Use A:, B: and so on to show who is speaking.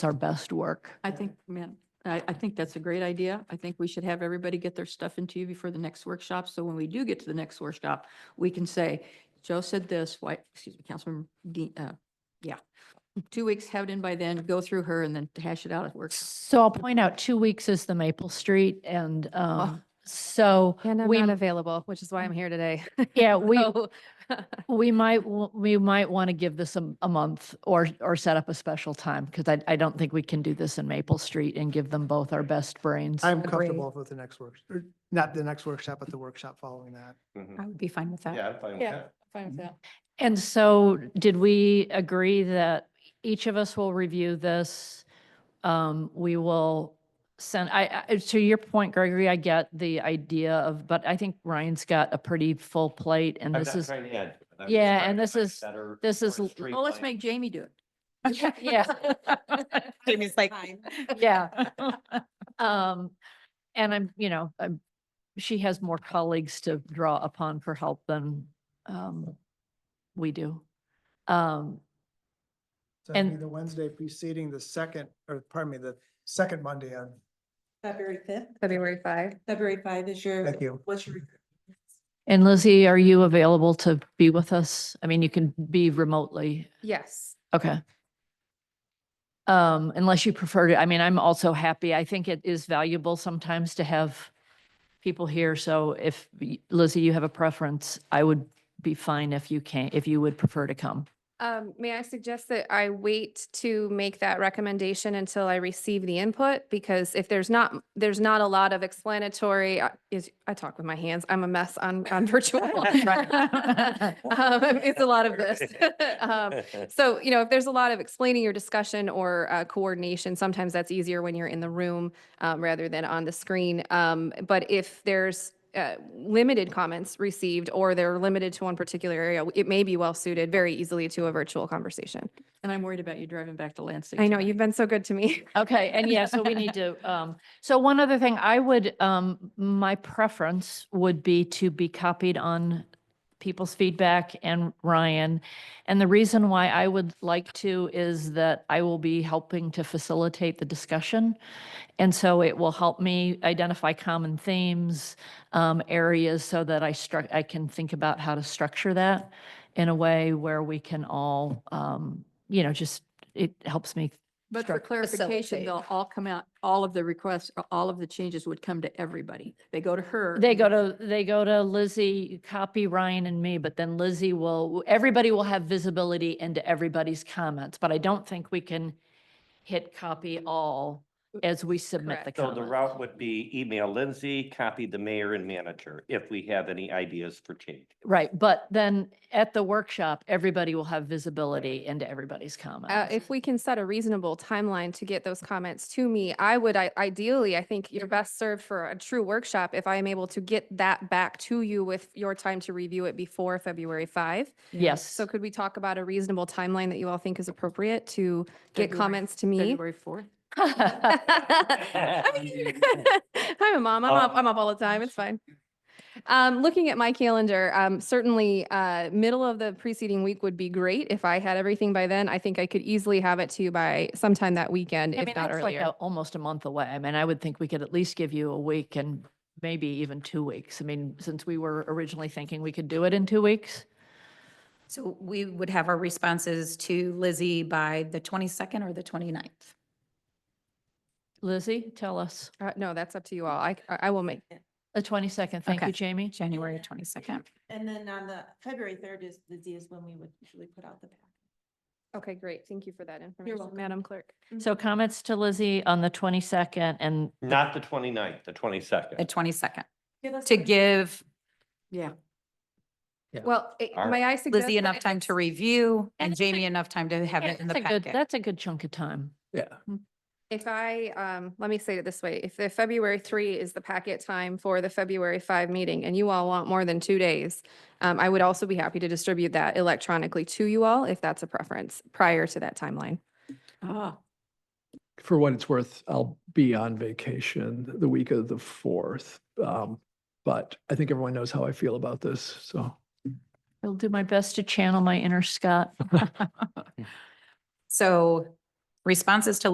A: our best work.
B: I think, man, I, I think that's a great idea. I think we should have everybody get their stuff into you before the next workshop. So when we do get to the next workshop, we can say, Joe said this, why, excuse me, Councilmember Dean, uh, yeah. Two weeks, have it in by then, go through her and then hash it out at work.
A: So I'll point out, two weeks is the Maple Street and, um, so
C: And I'm
A: we,
C: not available, which is why I'm here today.
A: yeah, we,
C: So,
A: we might, w- we might want to give this a, a month or, or set up a special time because I, I don't think we can do this in Maple Street and give them both our best brains.
D: I'm
C: Agree.
D: comfortable with the next work, or not the next workshop, but the workshop following that.
C: I would be fine with that.
E: Mm-hmm. Yeah, I'm fine with
B: Yeah.
E: that.
B: Fine with that.
A: And so did we agree that each of us will review this? Um, we will send, I, I, to your point, Gregory, I get the idea of, but I think Ryan's got a pretty full plate and
E: I'm
A: this
E: not
A: is,
E: trying to add. to it. I'm just
A: Yeah,
E: trying
A: and
E: to
A: this
E: find
A: is-
E: better,
A: this is
E: more
A: l-
B: Well, let's
E: streamlined-
B: make Jamie do it.
A: yeah.
C: Jamie's like.
A: Yeah. Um, and I'm, you know, I'm, she has more colleagues to draw upon for help than, um, we do. Um,
D: So it'd be
A: And-
D: the Wednesday preceding the second, or pardon me, the second Monday of,
F: February fifth,
C: February five.
F: February five is your.
D: thank you.
F: What's your,
A: and Lizzie, are you available to be with us? I mean, you can be remotely.
C: Yes.
A: Okay. Um, unless you prefer to, I mean, I'm also happy. I think it is valuable sometimes to have people here. So if y- Lizzie, you have a preference, I would be fine if you can, if you would prefer to come.
C: Um, may I suggest that I wait to make that recommendation until I receive the input? Because if there's not, there's not a lot of explanatory, I- is, I talk with my hands, I'm a mess on, on virtual. Um,
A: That's right.
C: It's a lot of this. Um, So, you know, if there's a lot of explaining your discussion or uh, coordination, sometimes that's easier when you're in the room um, rather than on the screen. Um, But if there's uh, limited comments received or they're limited to one particular area, it may be well-suited very easily to a virtual conversation.
B: And I'm worried about you driving back to Lansing.
C: I know,
B: tonight.
C: you've been so good to me.
A: Okay, and yeah, so we need to, um, so one other thing, I would, um, my preference would be to be copied on people's feedback and Ryan. And the reason why I would like to is that I will be helping to facilitate the discussion. And so it will help me identify common themes, um, areas so that I struck, I can think about how to structure that in a way where we can all, um, you know, just, it helps me
B: But for
A: struct-
B: clarification,
A: facilitate.
B: they'll all come out, all of the requests, all of the changes would come to everybody. They go to her.
A: They
B: and
A: go
B: then-
A: to, they go to Lizzie, copy Ryan and me, but then Lizzie will, everybody will have visibility into everybody's comments, but I don't think we can hit copy all as we submit the
C: Correct.
E: So the
A: comments.
E: route would be email Lindsay, copy the mayor and manager if we have any ideas for change.
A: Right, but then at the workshop, everybody will have visibility into everybody's
C: Uh,
A: comments.
C: if we can set a reasonable timeline to get those comments to me, I would I- ideally, I think you're best served for a true workshop if I am able to get that back to you with your time to review it before February five.
A: Yes,
C: So could we talk about a reasonable timeline that you all think is appropriate to get
B: February-
C: comments to me?
B: February fourth.
C: I mean, I'm a mom. I'm up,
E: Um,
C: I'm up all the time. It's fine. Um, looking at my calendar, um, certainly, uh, middle of the preceding week would be great. If I had everything by then, I think I could easily have it to you by sometime that weekend,
A: I
C: if
A: mean,
C: not
A: that's like
C: earlier.
A: a- almost a month away. I mean, I would think we could at least give you a week and maybe even two weeks. I mean, since we were originally thinking we could do it in two weeks.
G: So we would have our responses to Lizzie by the 22nd or the 29th.
A: Lizzie, tell us.
C: Uh, no, that's up to you all. I, I I will make.
A: The twenty-second, thank you,
G: Okay.
A: Jamie.
G: January 22nd.
F: and then on the February third is, Lizzie is when we would usually put out the pack.
C: Okay, great. Thank you for that information,
F: welcome.
C: Madam Clerk.
A: So comments to Lizzie on the twenty-second and
E: Not the 29th, the
G: The
E: 22nd.
G: 22nd
F: Give us
G: to
F: the-
G: give
B: Yeah.
D: Yeah.
C: Well, eh,
E: All right.
C: may I suggest?
G: Lizzie
C: that
G: enough
C: if
G: time to
C: it's-
G: review and
A: That's a-
G: Jamie enough time to have
A: Yeah,
G: it in the
A: that's a good-
G: packet.
A: That's a good chunk of time.
D: Yeah.
C: If I, um, let me say it this way, if the February three is the packet time for the February five meeting and you all want more than two days, um, I would also be happy to distribute that electronically to you all if that's a preference prior to that timeline.
B: Ah,
H: for what it's worth, I'll be on vacation the week of the fourth. Um, but I think everyone knows how I feel about this, so.
A: I'll do my best to channel my inner Scott.
G: So responses to